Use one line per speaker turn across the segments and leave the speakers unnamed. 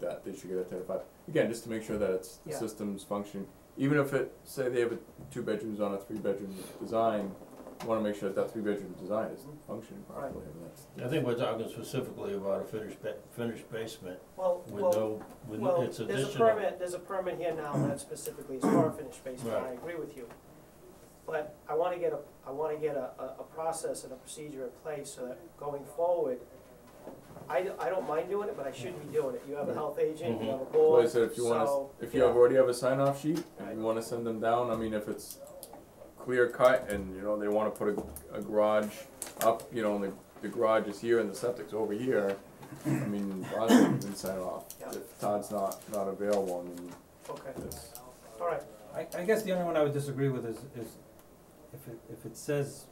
that, they should get identified. Again, just to make sure that it's, the
Yeah.
system's functioning, even if it, say they have a two bedrooms on a three bedroom design, you wanna make sure that that three bedroom design is functioning
Mm-hmm. Right.
properly, and that's.
I think we're talking specifically about a finished ba- finished basement
Well,
with
well,
no, with no,
well,
it's
there's a
additional.
permit, there's a permit here now that specifically is for a finished basement, I
Right.
agree with you. But I wanna get a, I wanna get a, a, a process and a procedure in place so that going forward, I, d- I don't mind doing it, but I should be doing it. You have a health agent, you have a
Mm-hmm.
Well, I
board,
said if you wanna, s-
so,
if you
yeah.
have already have a sign off sheet,
Right.
and you wanna send them down, I mean, if it's clear cut and, you know, they wanna put a, a garage up, you know, and the, the garage is here and the septic's over here, I mean, Boston can sign off.
Yeah.
If Todd's not, not available, I mean,
Okay,
it's.
all right,
I, I guess the only one I would disagree with is, is if it, if it says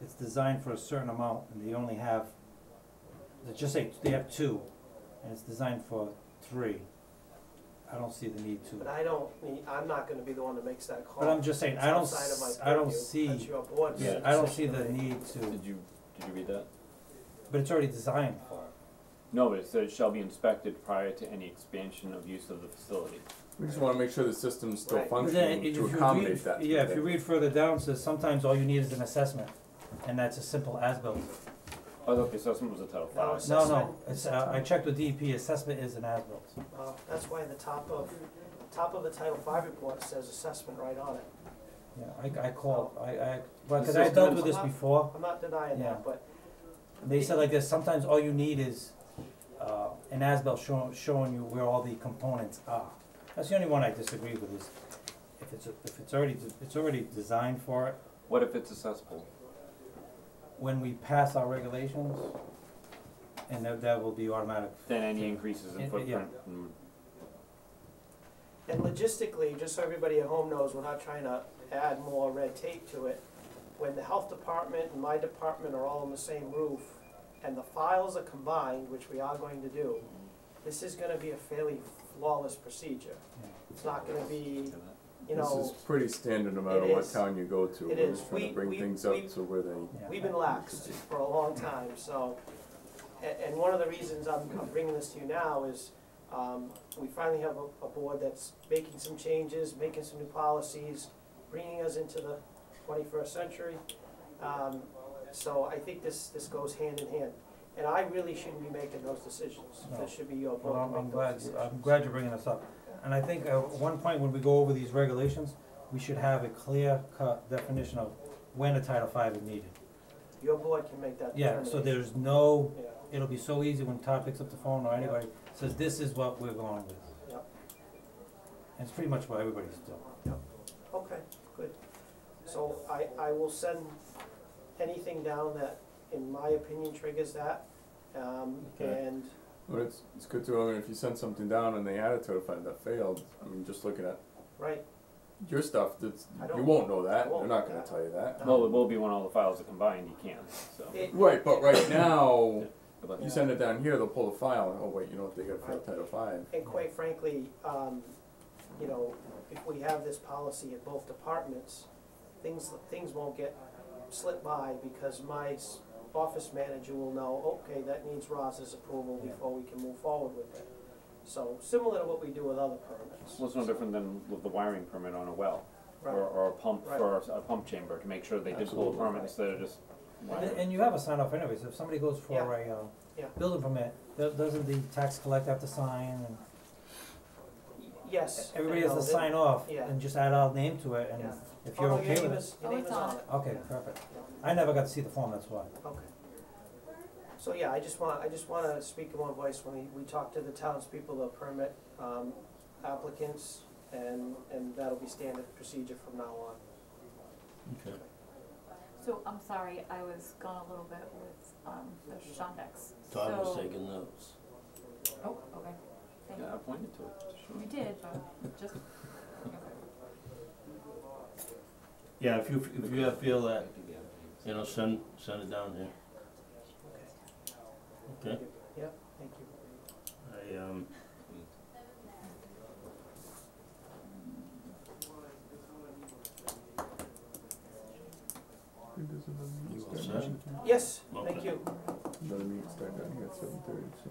it's designed for a certain amount and they only have, let's just say they have two, and it's designed for three, I don't see the need
but
to.
I don't, need- I'm not gonna be the one that makes that call.
But I'm just saying, I don't,
Outside of my
s- I don't
purview.
see,
That's your board's
Yeah,
I don't see
decision to
the
make.
need to,
Did you, did you read that?
but it's already designed for it.
No, but it says shall be inspected prior to any expansion of use of the facility.
We just wanna make sure the system's still
Right.
But
functioning
then if you
to
read-
accommodate that.
Yeah, if you read further down, it says sometimes all you need is an assessment, and that's as simple as built.
Oh, okay, so someone was a Title
No,
Five.
it's-
No, no,
Assessment,
it's, uh, I checked with DEP, assessment is an as-built.
Uh, that's why the top of, top of the Title V report says assessment right on it.
Yeah, I, I called, I, I, well,
The
cause I dealt
system
with
is-
this before,
I'm not denying
Yeah.
that, but
they said like this, sometimes all you need is, uh, an as-built showing, showing you where all the components are. That's the only one I disagree with is, if it's, if it's already, it's already designed for it,
What if it's accessible?
when we pass our regulations, and that, that will be automatic.
Then any increases
Yeah,
in
yeah.
footprint and
And logistically, just so everybody at home knows, we're not trying to add more red tape to it. When the health department and my department are all on the same roof, and the files are combined, which we are going to do, this is gonna be a fairly flawless procedure. It's not gonna be, you
This
know,
is pretty standard no matter
it
what
is.
town you go to,
It
we're
is.
just trying
We-
to bring
we-
things
we-
up to where they.
Yeah.
we've been lax for a long time, so. And, and one of the reasons I'm I'm bringing this to you now is, um, we finally have a, a board that's making some changes, making some new policies, bringing us into the twenty-first century. Um, so I think this, this goes hand in hand, and I really shouldn't be making those decisions,
No.
this should be your
Well,
board
I'm,
to
I'm
make
glad,
those decisions.
I'm glad you're bringing this up. And I think at one point when we go over these regulations, we should have a clear cut definition of when a Title V is needed.
Your board can make that
Yeah,
determination.
so there's no,
Yeah.
it'll be so easy when Todd picks up the phone or anybody says, this is what we're going with.
Yep.
And it's pretty much what everybody's doing.
Okay, good. So I, I will send anything down that, in my opinion, triggers that. Um,
Okay.
and,
But it's, it's good to, I mean, if you send something down and they had a Title Five that failed, I mean, just looking at
right,
your stuff, that's,
I
you
don't-
won't know that, they're
won't.
not gonna tell you that.
Well, it will be when all the files are combined, you can, so.
it,
Right, but right now,
But-
you send it down here, they'll pull the file, and, oh wait, you know what, they got a failed
Right.
Title Five.
and quite frankly, um, you know, if we have this policy at both departments, things, things won't get slipped by because my s- office manager will know, okay, that needs Roz's approval before we can move forward with it. So similar to what we do with other permits.
Well, it's no different than with the wiring permit on a well, or,
Right.
or a pump,
Right.
for a pump chamber, to make sure they did pull a
Absolutely.
permit instead of just
And,
wiring.
and you have a sign off anyways, if somebody goes for a, uh,
Yeah.
building permit, do- doesn't the tax collector have to sign and
Y- Yes.
everybody has to
No,
sign off
yeah.
and just add our name to it and
Yeah.
if you're
Oh,
okay with it.
your name is, your
Oh,
name
it's
is
on
on it.
Okay,
Yeah,
perfect. I never got to see the form, that's why.
Okay. So, yeah, I just want, I just wanna speak in one voice when we, we talk to the townspeople, the permit, um, applicants, and, and that'll be standard procedure from now on.
Okay.
So I'm sorry, I was gone a little bit with um the Shondex.
Todd was
So-
taking notes.
Oh, okay. Thank
Yeah,
you.
I pointed to it, sure.
You did, but just,
Yeah, if you, if you feel that, you know, send, send it down here. Okay.
Yep, thank you.
I, um,
Another
all set?
Yes, thank
Okay.
you.
meeting start down here at seven thirty, so.